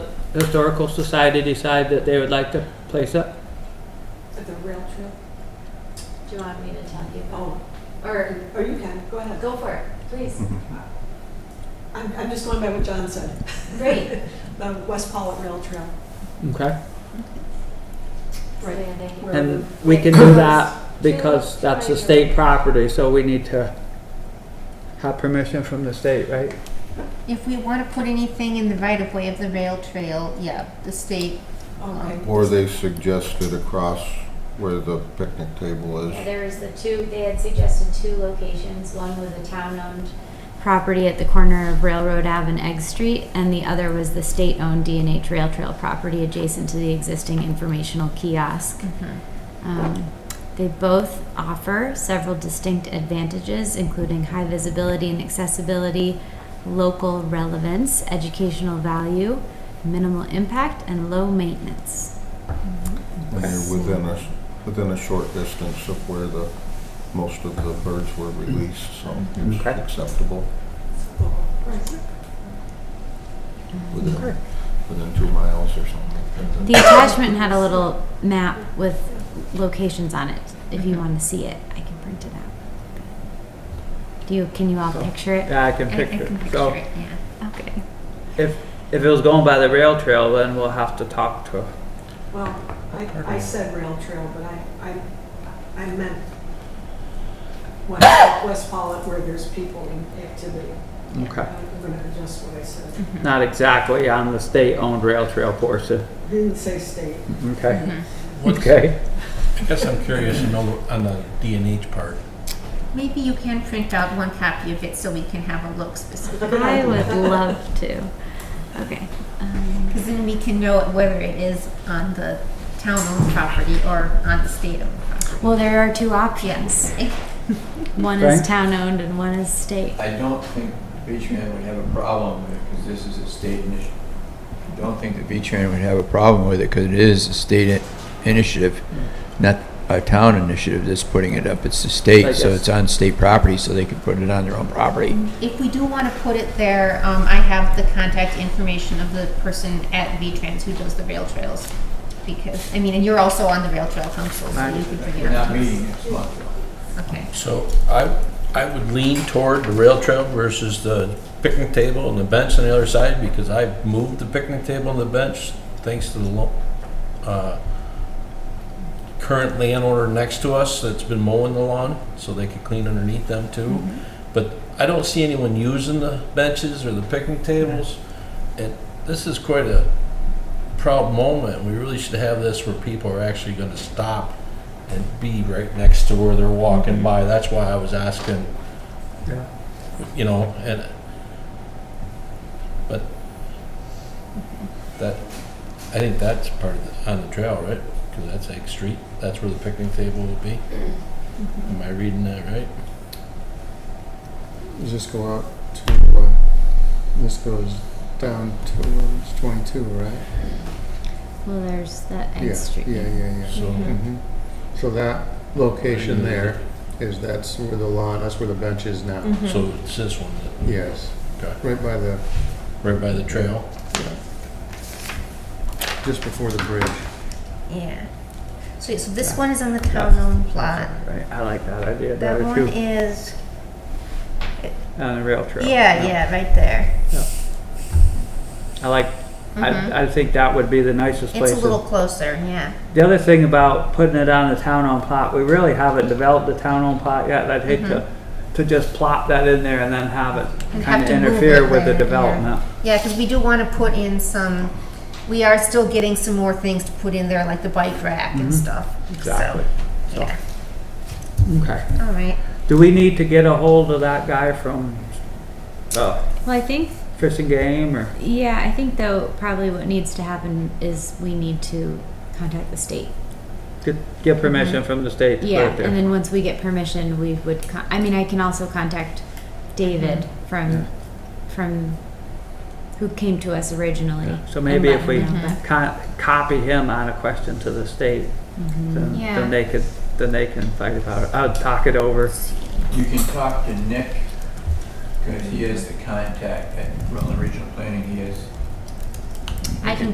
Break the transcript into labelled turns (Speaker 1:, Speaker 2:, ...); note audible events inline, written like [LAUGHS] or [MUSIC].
Speaker 1: Historical Society decide that they would like to place up?
Speaker 2: At the rail trail?
Speaker 3: Do you want me to tell you?
Speaker 2: Oh,
Speaker 3: Or
Speaker 2: or you can, go ahead.
Speaker 3: go for it, please.
Speaker 2: I'm, I'm just going by what John said,
Speaker 3: Great.
Speaker 2: the West Pollitt Rail Trail.
Speaker 1: Okay.
Speaker 2: Right.
Speaker 3: Yeah, thank you.
Speaker 2: where
Speaker 1: And
Speaker 2: the-
Speaker 1: we can do that because that's a state property, so we need to have permission from the state, right?
Speaker 4: If we want to put anything in the right of way of the rail trail, yeah, the state,
Speaker 2: Okay.
Speaker 5: Or they suggested across where the picnic table
Speaker 3: Yeah,
Speaker 5: is.
Speaker 3: There was the two, they had suggested two locations. One was a town-owned property at the corner of Railroad Ave and Egg Street, and the other was the state-owned D and H Rail Trail property adjacent to the existing informational kiosk.
Speaker 1: Mm-hmm.
Speaker 3: Um, They both offer several distinct advantages, including high visibility and accessibility, local relevance, educational value, minimal impact, and low maintenance.
Speaker 5: And you're within a, within a short distance of where the, most of the birds were released, so it's
Speaker 1: Okay.
Speaker 5: acceptable
Speaker 2: Right.
Speaker 5: within, within two miles or something.
Speaker 3: The attachment had a little map with locations on it. If you want to see it, I can print it out. Do you, can you all
Speaker 1: So-
Speaker 3: picture it?
Speaker 1: Yeah, I can
Speaker 4: I I
Speaker 1: picture
Speaker 4: can
Speaker 1: it.
Speaker 4: picture
Speaker 1: So
Speaker 4: it, yeah.
Speaker 3: Okay.
Speaker 1: if, if it was going by the rail trail, then we'll have to talk to
Speaker 2: Well, I, I said rail trail, but I, I, I meant West, West Pollitt where there's people and activity.
Speaker 1: Okay.
Speaker 4: Mm-hmm.
Speaker 2: I'm gonna adjust what I said.
Speaker 1: Not exactly on the state-owned rail trail portion.
Speaker 2: I Didn't say state.
Speaker 1: Okay.
Speaker 4: Mm-hmm.
Speaker 1: [LAUGHS]
Speaker 6: What's-
Speaker 1: Okay.
Speaker 6: I guess I'm curious to know on the D and H part.
Speaker 4: Maybe you can print out one copy of it so we can have a look specifically.
Speaker 3: I would love to. Okay. Um,
Speaker 4: Because then we can know whether it is on the town-owned property or on the state-owned property.
Speaker 3: well, there are two options. One is
Speaker 1: Okay.
Speaker 3: town-owned and one is state.
Speaker 7: I don't think Beachman would have a problem with it because this is a state initiative. I don't think the Beachman would have a problem with it because it is a state i- initiative, not a town initiative that's putting it up. It's the
Speaker 1: I
Speaker 7: state, so
Speaker 1: guess.
Speaker 7: it's on state property, so they can put it on their own property.
Speaker 4: If we do want to put it there, um, I have the contact information of the person at V-Trans who does the rail trails. Because, I mean, and you're also on the rail trail council, so you can bring it
Speaker 7: We're
Speaker 4: up.
Speaker 7: not
Speaker 4: to us.
Speaker 7: meeting next month.
Speaker 4: Okay.
Speaker 6: So I, I would lean toward the rail trail versus the picnic table and the bench on the other side because I've moved the picnic table and the bench thanks to the lo- uh, current landowner next to us that's been mowing the lawn, so they could clean underneath them too. But I don't see anyone using the benches or the picnic tables. And this is quite a proud moment. We really should have this where people are actually gonna stop and be right next to where they're walking by. That's why I was asking,
Speaker 1: Yeah.
Speaker 6: you know, and, but that, I think that's part of the, on the trail, right? Because that's Egg Street, that's where the picnic table will be. Am I reading that right?
Speaker 8: You just go out to, uh, this goes down towards 22, right?
Speaker 3: Well, there's that
Speaker 8: yeah,
Speaker 3: Egg Street.
Speaker 8: Yeah, yeah, yeah.
Speaker 6: So,
Speaker 8: hmm So that location there is that's where the lawn, that's where the bench is now.
Speaker 6: so it's this one, that-
Speaker 8: Yes.
Speaker 6: Okay.
Speaker 8: Right by the,
Speaker 6: right by the trail.
Speaker 8: just before the bridge.
Speaker 4: Yeah. So, so this one is on the town-owned plot.
Speaker 1: Right, I like that idea
Speaker 4: That
Speaker 1: better
Speaker 4: one
Speaker 1: too,
Speaker 4: is,
Speaker 1: on the rail trail.
Speaker 4: yeah, yeah, right there.
Speaker 1: I like,
Speaker 4: Mhm.
Speaker 1: I, I think that would be the nicest place.
Speaker 4: It's a
Speaker 1: to-
Speaker 4: little closer, yeah.
Speaker 1: The other thing about putting it on the town-owned plot, we really haven't developed the town-owned plot yet. and I'd hate to, to just plop that in there and then have it
Speaker 4: Mm-hmm. And
Speaker 1: kind
Speaker 4: have
Speaker 1: of
Speaker 4: to move
Speaker 1: interfere
Speaker 4: it
Speaker 1: with the
Speaker 4: later.
Speaker 1: development.
Speaker 4: Yeah, because we do want to put in some, we are still getting some more things to put in there, like the bike rack and stuff. So,
Speaker 1: Exactly. So-
Speaker 4: Yeah,
Speaker 1: Okay.
Speaker 4: all right.
Speaker 1: Do we need to get a hold of that guy from, uh,
Speaker 3: Well, I think
Speaker 1: Fish and Game or?
Speaker 3: Yeah, I think though probably what needs to happen is we need to contact the state.
Speaker 1: Get, get
Speaker 4: Mm-hmm.
Speaker 1: permission from the state to put
Speaker 3: Yeah,
Speaker 1: it
Speaker 3: and
Speaker 1: there.
Speaker 3: then once we get permission, we would. Con- I mean, I can also contact David
Speaker 1: Mm-hmm.
Speaker 3: from
Speaker 1: Yeah.
Speaker 3: from who came to us originally.
Speaker 1: So
Speaker 3: and
Speaker 1: maybe
Speaker 3: let
Speaker 1: if
Speaker 3: him
Speaker 1: we
Speaker 3: know, but-
Speaker 1: co- copy him on a question to the state,
Speaker 4: Mm-hmm.
Speaker 1: then,
Speaker 3: Yeah.
Speaker 1: then they could, then they can fight about it. I'll talk it over.
Speaker 7: You can talk to Nick because he is the contact at Rutland Regional Planning. He is
Speaker 3: I can